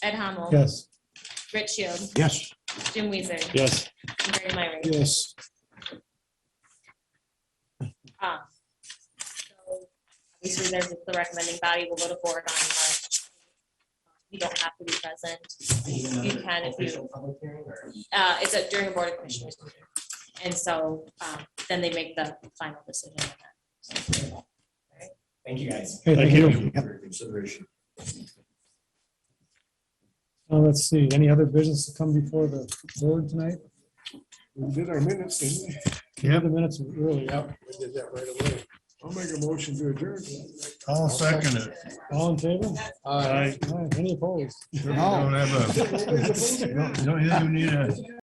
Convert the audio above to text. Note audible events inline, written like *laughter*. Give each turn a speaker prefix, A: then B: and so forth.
A: Ed Hamel.
B: Yes.
A: Rich Shield.
C: Yes.
A: Jim Weezer.
B: Yes.
A: and Mary Myrie.
B: Yes.
A: Um, so Obviously, there's the recommending body will go to board on March. You don't have to be present. You can if you, uh, it's a- during a board of commissioners. meeting. And so, um, then they make the final decision. on that.
D: Thank you, guys.
B: Hey, thank you.
D: For your consideration.
B: Uh, let's see, any other business to come before the board tonight?
C: We did our minutes, didn't we?
B: Yeah. The minutes are really out.
C: We did that right away. I'll make a motion to
D: *laughs*
C: adjourn.
E: I'll second it.
B: All in favor?
E: Aye.
B: Aye. Any opposed? Oh.
E: You don't have a,
C: Nobody's opposing that.
E: you don't you don't need a